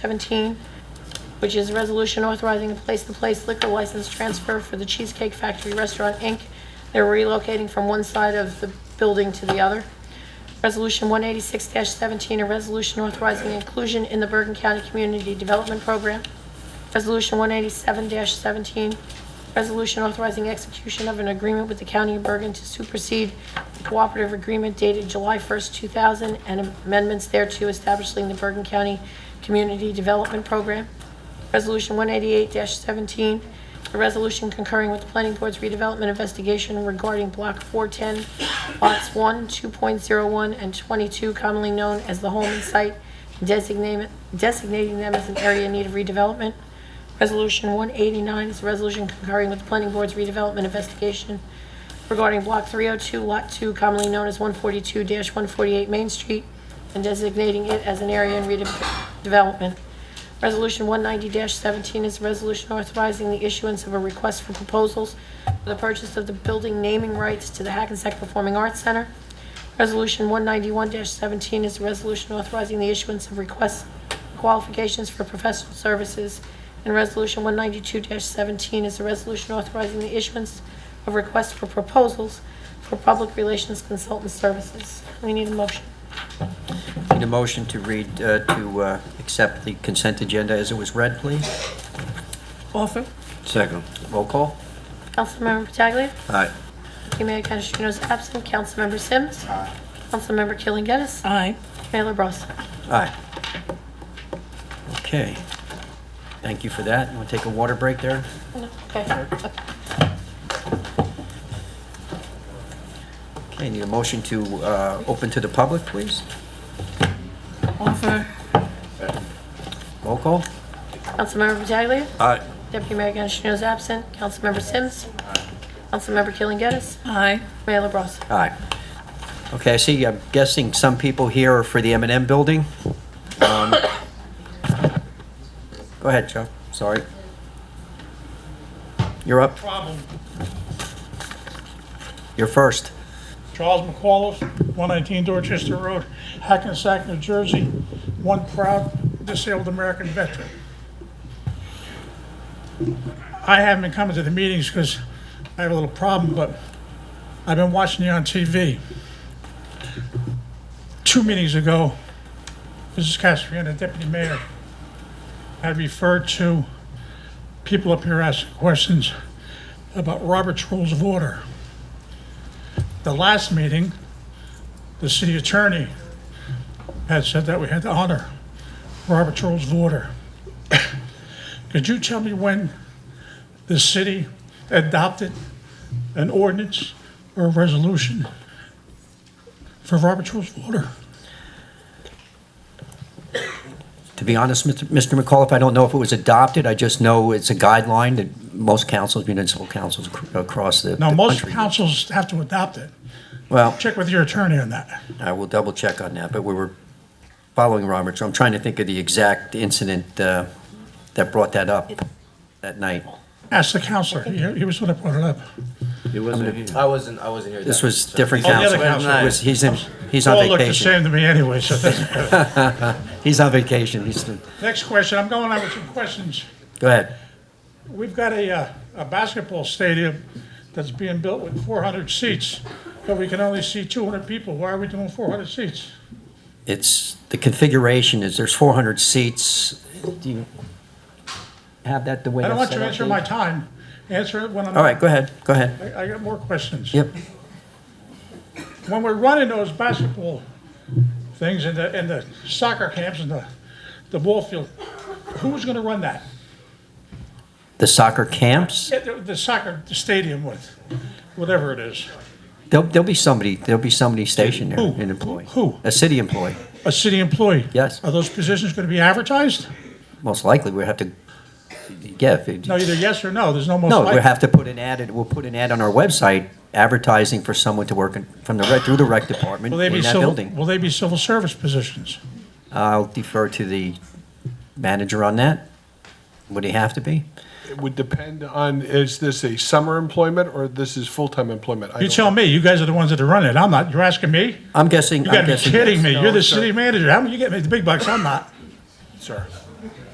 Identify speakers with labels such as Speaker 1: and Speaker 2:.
Speaker 1: 17, which is a resolution authorizing a place-to-place liquor license transfer for the Cheesecake Factory Restaurant, Inc. They're relocating from one side of the building to the other. Resolution 186-17, a resolution authorizing inclusion in the Bergen County Community Development Program. Resolution 187-17, resolution authorizing execution of an agreement with the County of Bergen to supersede the cooperative agreement dated July 1st, 2000, and amendments thereto establishing the Bergen County Community Development Program. Resolution 188-17, a resolution concurring with the Planning Board's redevelopment investigation regarding Block 410, lots 1, 2.01, and 22, commonly known as the Holman Site, designating designating them as an area in need of redevelopment. Resolution 189 is a resolution concurring with the Planning Board's redevelopment investigation regarding Block 302, Lot 2, commonly known as 142-148 Main Street, and designating it as an area in redevelopment. Resolution 190-17 is a resolution authorizing the issuance of a request for proposals for the purchase of the building naming rights to the Hackensack Performing Arts Center. Resolution 191-17 is a resolution authorizing the issuance of requests qualifications for professional services. And Resolution 192-17 is a resolution authorizing the issuance of requests for proposals for public relations consultant services. We need a motion.
Speaker 2: Need a motion to read, uh, to uh, accept the consent agenda as it was read, please?
Speaker 3: Offer,
Speaker 2: Second. Roll call?
Speaker 1: Councilmember Pataglia.
Speaker 2: Aye.
Speaker 1: Deputy Mayor Canestrino is absent. Councilmember Sims. Councilmember Killen Gettis.
Speaker 3: aye.
Speaker 1: Mayor LaBrus.
Speaker 2: Aye. Okay. Thank you for that. Want to take a water break there?
Speaker 1: Okay.
Speaker 2: Okay, need a motion to uh, open to the public, please?
Speaker 3: Offer,
Speaker 2: Roll call?
Speaker 1: Councilmember Pataglia.
Speaker 2: Aye.
Speaker 1: Deputy Mayor Canestrino is absent. Councilmember Sims. Councilmember Killen Gettis.
Speaker 3: aye.
Speaker 1: Mayor LaBrus.
Speaker 2: Aye. Okay, I see, I'm guessing some people here are for the m and M building? Um, Go ahead, Joe, sorry. You're up,
Speaker 4: problem.
Speaker 2: you're first.
Speaker 4: Charles McCullough, 119 Dorchester Road, Hackensack, New Jersey, one proud disabled American veteran. I haven't been coming to the meetings because I have a little problem, but I've been watching you on TV. Two meetings ago, Mrs. Castriana, Deputy Mayor, had referred to people up here asking questions about Robert's Rules of Order the last meeting, the city attorney had said that we had to honor Robert Rules of Order. Could you tell me when the city adopted an ordinance or a resolution for Robert Rules of Order?
Speaker 2: To be honest, Mr. Mr. McAuliffe, I don't know if it was adopted, I just know it's a guideline that most councils, municipal councils ac- across the the
Speaker 4: Now,
Speaker 2: country.
Speaker 4: most councils have to adopt it.
Speaker 2: Well,
Speaker 4: Check with your attorney on that.
Speaker 2: I will double check on that, but we were following Robert, so I'm trying to think of the exact incident uh, that brought that up that night.
Speaker 4: Ask the counselor. He he was the one that brought it up.
Speaker 5: It wasn't here.
Speaker 6: I wasn't, I wasn't here.
Speaker 2: This
Speaker 6: that
Speaker 2: was
Speaker 6: night, so-
Speaker 2: different
Speaker 4: Oh, the
Speaker 2: council.
Speaker 4: other council.
Speaker 2: It was- He's in, he's on
Speaker 4: All looked the
Speaker 2: vacation.
Speaker 4: same to me anyway, so it doesn't matter.
Speaker 2: He's on vacation. He's,
Speaker 4: Next question. I'm going on with some questions.
Speaker 2: go ahead.
Speaker 4: We've got a, uh, a basketball stadium that's being built with 400 seats, but we can only see 200 people. Why are we doing 400 seats?
Speaker 2: It's, the configuration is, there's 400 seats. Do you have that the way
Speaker 4: I don't
Speaker 2: that's
Speaker 4: want you
Speaker 2: set
Speaker 4: to
Speaker 2: up?
Speaker 4: answer my time. Answer it when I'm.
Speaker 2: All right, go ahead, go ahead.
Speaker 4: I I got more questions.
Speaker 2: Yep,
Speaker 4: When we're running those basketball things in the, in the soccer camps and the, the ball field, who's going to run that?
Speaker 2: the soccer camps,
Speaker 4: Yeah, The the soccer stadium with, whatever it is.
Speaker 2: there'll, there'll be somebody, there'll be somebody stationed there,
Speaker 4: Who?
Speaker 2: an employee.
Speaker 4: Who?
Speaker 2: A city employee,
Speaker 4: A city employee?
Speaker 2: Yes.
Speaker 4: Are those positions going to be advertised?
Speaker 2: most likely, we have to, yeah. if it-
Speaker 4: No, either yes or no. There's no most
Speaker 2: No,
Speaker 4: likely.
Speaker 2: we have to put an ad, we'll put an ad on our website advertising for someone to work in, from the, rec- through the rec department
Speaker 4: Will they
Speaker 2: in
Speaker 4: be
Speaker 2: that
Speaker 4: civil,
Speaker 2: building.
Speaker 4: will they be civil service positions?
Speaker 2: I'll defer to the manager on that. Would he have to be?
Speaker 7: It would depend on, is this a summer employment or this is full-time employment? I
Speaker 4: You
Speaker 7: don't
Speaker 4: tell me, you guys are the ones that are running it, I'm not, you're asking me?
Speaker 2: I'm guessing.
Speaker 4: You
Speaker 2: I'm
Speaker 4: gotta be
Speaker 2: guessing
Speaker 4: kidding
Speaker 2: yes.
Speaker 4: me,
Speaker 7: No,
Speaker 4: you're the
Speaker 7: sir.
Speaker 4: city manager, how come you get me the big bucks, I'm not?
Speaker 7: know, Sir,